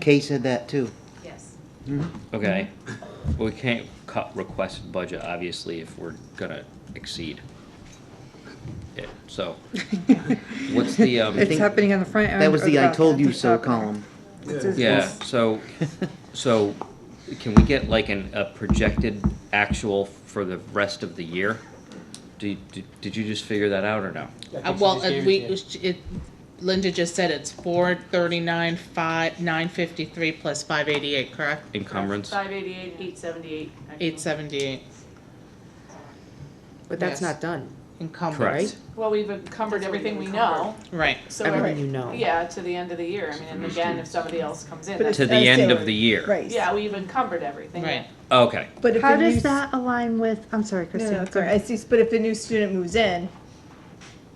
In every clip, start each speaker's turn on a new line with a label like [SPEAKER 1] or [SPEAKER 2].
[SPEAKER 1] Kay said that too.
[SPEAKER 2] Yes.
[SPEAKER 3] Okay, we can't cut requested budget, obviously, if we're gonna exceed it, so. What's the, um,
[SPEAKER 1] think
[SPEAKER 4] It's happening on the front end.
[SPEAKER 1] That was
[SPEAKER 4] or
[SPEAKER 1] the I
[SPEAKER 4] back
[SPEAKER 1] told
[SPEAKER 4] end,
[SPEAKER 1] you
[SPEAKER 4] the
[SPEAKER 1] so
[SPEAKER 4] top end.
[SPEAKER 1] column.
[SPEAKER 4] It says
[SPEAKER 3] yeah,
[SPEAKER 4] both.
[SPEAKER 3] so, so can we get like an, a projected actual for the rest of the year? Do, did, did you just figure that out or no?
[SPEAKER 5] Uh, well, uh, we, it, Linda just said it's four thirty-nine, five, nine fifty-three plus five eighty-eight, correct?
[SPEAKER 3] Encumbrance?
[SPEAKER 2] Five eighty-eight, eight seventy-eight.
[SPEAKER 5] Eight seventy-eight
[SPEAKER 6] But that's
[SPEAKER 5] Yes.
[SPEAKER 6] not done.
[SPEAKER 3] Correct.
[SPEAKER 5] encumbrance,
[SPEAKER 2] Well, we've encumbered
[SPEAKER 6] That's already
[SPEAKER 2] everything we know,
[SPEAKER 6] encumbered.
[SPEAKER 5] right,
[SPEAKER 2] so.
[SPEAKER 6] Everything
[SPEAKER 2] every-
[SPEAKER 6] you know.
[SPEAKER 2] Yeah, to the end of the year. I mean, and again, if somebody else comes in,
[SPEAKER 4] But
[SPEAKER 2] that's,
[SPEAKER 3] To the
[SPEAKER 4] I say-
[SPEAKER 3] end of the year?
[SPEAKER 4] Right.
[SPEAKER 2] yeah, we've encumbered everything.
[SPEAKER 5] right.
[SPEAKER 3] Okay,
[SPEAKER 4] But if
[SPEAKER 6] How
[SPEAKER 4] a new
[SPEAKER 6] does
[SPEAKER 4] s-
[SPEAKER 6] that align with, I'm sorry,
[SPEAKER 4] No, no,
[SPEAKER 6] Christine.
[SPEAKER 4] sorry, I see, but if a new student moves in,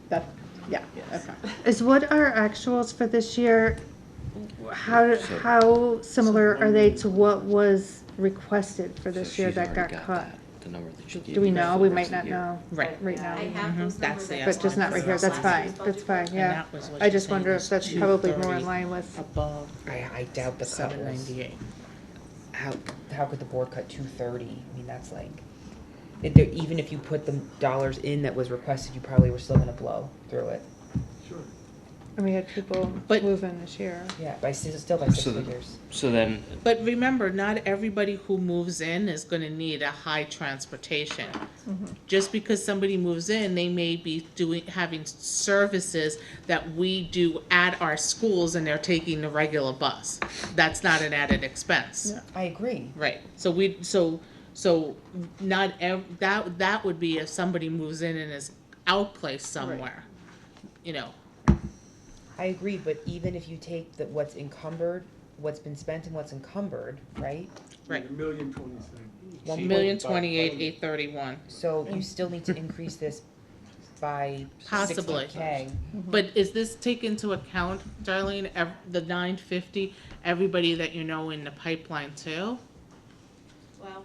[SPEAKER 4] that, yeah,
[SPEAKER 2] Yes.
[SPEAKER 4] okay.
[SPEAKER 6] Is what our actuals for this year, how,
[SPEAKER 3] So-
[SPEAKER 6] how similar are they to what was requested for
[SPEAKER 3] so
[SPEAKER 6] this year
[SPEAKER 3] she's
[SPEAKER 6] that got
[SPEAKER 3] already
[SPEAKER 6] cut?
[SPEAKER 3] that, the number that she gave
[SPEAKER 6] Do we
[SPEAKER 3] you for
[SPEAKER 6] know?
[SPEAKER 3] the
[SPEAKER 6] We
[SPEAKER 3] rest
[SPEAKER 6] might
[SPEAKER 3] of the
[SPEAKER 6] not
[SPEAKER 3] year.
[SPEAKER 6] know
[SPEAKER 5] Right.
[SPEAKER 6] right
[SPEAKER 7] I
[SPEAKER 6] now,
[SPEAKER 7] have those
[SPEAKER 5] Mhm. That's
[SPEAKER 7] numbers
[SPEAKER 5] the
[SPEAKER 7] I
[SPEAKER 6] but just
[SPEAKER 7] saw
[SPEAKER 6] not right here,
[SPEAKER 7] from
[SPEAKER 6] that's
[SPEAKER 7] last
[SPEAKER 6] fine,
[SPEAKER 7] year's
[SPEAKER 6] that's
[SPEAKER 7] Mm-hmm. budget.
[SPEAKER 6] fine,
[SPEAKER 5] And
[SPEAKER 6] yeah.
[SPEAKER 5] that was what
[SPEAKER 6] I
[SPEAKER 5] she's
[SPEAKER 6] just
[SPEAKER 5] saying
[SPEAKER 6] wonder
[SPEAKER 5] was
[SPEAKER 6] if that's probably more
[SPEAKER 5] 230
[SPEAKER 6] in line with,
[SPEAKER 5] Above
[SPEAKER 8] I, I doubt the cut
[SPEAKER 5] seven
[SPEAKER 8] was,
[SPEAKER 5] ninety-eight.
[SPEAKER 8] how, how could the board cut two thirty? I mean, that's like, if there, even if you put the dollars in that was requested, you probably were still gonna blow through it.
[SPEAKER 6] and we had people
[SPEAKER 5] But-
[SPEAKER 6] move in this year.
[SPEAKER 8] Yeah, by, s- still by six
[SPEAKER 3] So the-
[SPEAKER 8] figures.
[SPEAKER 3] So then,
[SPEAKER 5] But remember, not everybody who moves in is gonna need a high transportation. Just because somebody moves in, they may be doing, having services that we do at our schools and they're taking the regular bus. That's not an added expense.
[SPEAKER 8] I agree.
[SPEAKER 5] Right, so we, so, so not ev- that, that would be if somebody moves in and is outplaced somewhere. You know,
[SPEAKER 8] I agree, but even if you take the, what's encumbered, what's been spent and what's encumbered, right?
[SPEAKER 5] right,
[SPEAKER 9] Million twenty-seven.
[SPEAKER 8] One
[SPEAKER 5] million
[SPEAKER 8] point-
[SPEAKER 5] twenty-eight, eight thirty-one.
[SPEAKER 8] So you still need to increase this by
[SPEAKER 5] Possibly.
[SPEAKER 8] sixty K.
[SPEAKER 5] But is this take into account, Darlene, ev- the nine fifty, everybody that you know in the pipeline too?
[SPEAKER 7] Well,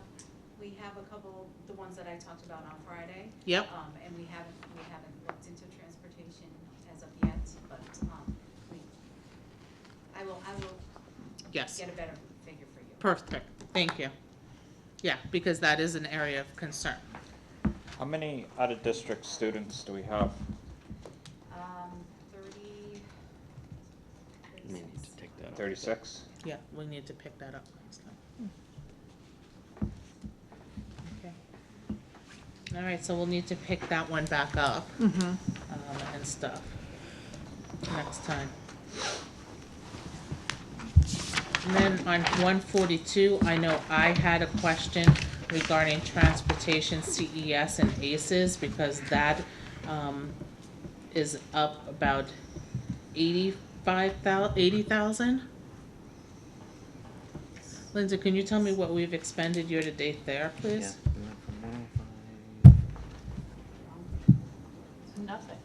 [SPEAKER 7] we have a couple, the ones that I talked about on Friday.
[SPEAKER 5] Yep,
[SPEAKER 7] Um, and we haven't, we haven't looked into transportation as of yet, but, um, we, I will, I will
[SPEAKER 5] yes,
[SPEAKER 7] get a better figure for you.
[SPEAKER 5] perfect, thank you. Yeah, because that is an area of concern.
[SPEAKER 10] How many out-of-district students do we have?
[SPEAKER 7] Um, thirty.
[SPEAKER 3] we need to take that off.
[SPEAKER 10] Thirty-six?
[SPEAKER 5] Yeah, we need to pick that up next time. Okay. All right, so we'll need to pick that one back up, um, and stuff, next time. And then on one forty-two, I know I had a question regarding transportation CES and ACES, because that, um, is up about eighty-five thou- eighty thousand? Linda, can you tell me what we've expended year-to-date there, please?
[SPEAKER 1] Yeah, we went from 105.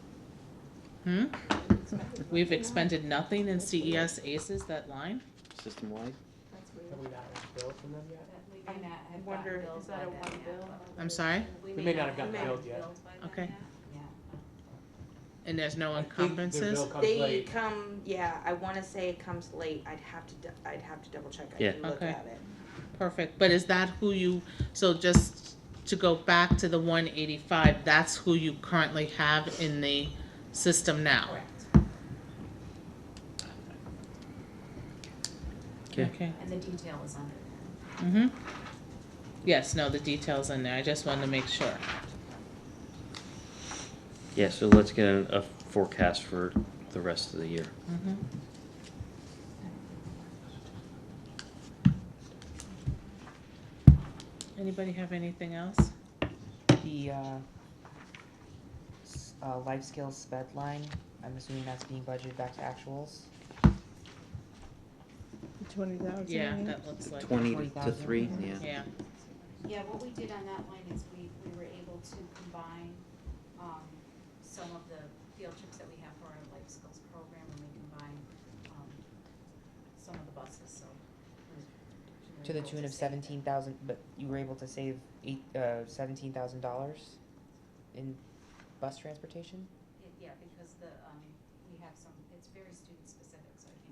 [SPEAKER 2] Nothing.
[SPEAKER 5] Hmm? We've expended nothing in CES ACES, that line?
[SPEAKER 1] System-wide?
[SPEAKER 7] That's
[SPEAKER 9] Have
[SPEAKER 7] weird.
[SPEAKER 9] we not had a bill from them yet?
[SPEAKER 7] That we
[SPEAKER 2] I
[SPEAKER 7] may not have
[SPEAKER 2] wonder,
[SPEAKER 7] gotten billed
[SPEAKER 2] is that
[SPEAKER 7] by
[SPEAKER 2] a
[SPEAKER 7] them
[SPEAKER 2] one
[SPEAKER 7] yet.
[SPEAKER 2] bill?
[SPEAKER 5] I'm sorry?
[SPEAKER 9] We may not have gotten
[SPEAKER 7] we may
[SPEAKER 9] billed
[SPEAKER 7] have
[SPEAKER 9] yet.
[SPEAKER 7] billed by them
[SPEAKER 5] Okay.
[SPEAKER 7] yet. Yeah.
[SPEAKER 5] And there's no
[SPEAKER 9] I think their
[SPEAKER 5] encumbrances?
[SPEAKER 9] bill comes
[SPEAKER 7] They
[SPEAKER 9] late.
[SPEAKER 7] come, yeah, I wanna say it comes late, I'd have to, d- I'd have to double check, I
[SPEAKER 3] Yeah.
[SPEAKER 7] can look
[SPEAKER 5] Okay.
[SPEAKER 7] at it.
[SPEAKER 5] Perfect, but is that who you, so just to go back to the one eighty-five, that's who you currently have in the system now?
[SPEAKER 7] Correct,
[SPEAKER 3] Okay.
[SPEAKER 5] Okay.
[SPEAKER 7] and the detail is under there.
[SPEAKER 5] Mm-hmm. Yes, no, the detail's in there, I just wanted to make sure.
[SPEAKER 3] Yeah, so let's get a a forecast for the rest of the year.
[SPEAKER 5] Mhm. Anybody have anything else?
[SPEAKER 8] The, uh, s- uh, life skills sped line, I'm assuming that's being budgeted back to actuals.
[SPEAKER 4] Twenty thousand.
[SPEAKER 5] Yeah, that looks like,
[SPEAKER 1] Twenty to
[SPEAKER 8] 20,000.
[SPEAKER 1] three, yeah.
[SPEAKER 5] yeah.
[SPEAKER 7] Yeah, what we did on that line is we, we were able to combine, um, some of the field trips that we have for our life skills program, and we combined, um, some of the buses, so. we were
[SPEAKER 8] To the
[SPEAKER 7] able
[SPEAKER 8] tune of
[SPEAKER 7] save
[SPEAKER 8] seventeen thousand, but you were able to save eight, uh, seventeen thousand dollars in bus transportation?
[SPEAKER 7] that. Yeah, because the, um, we have some, it's very student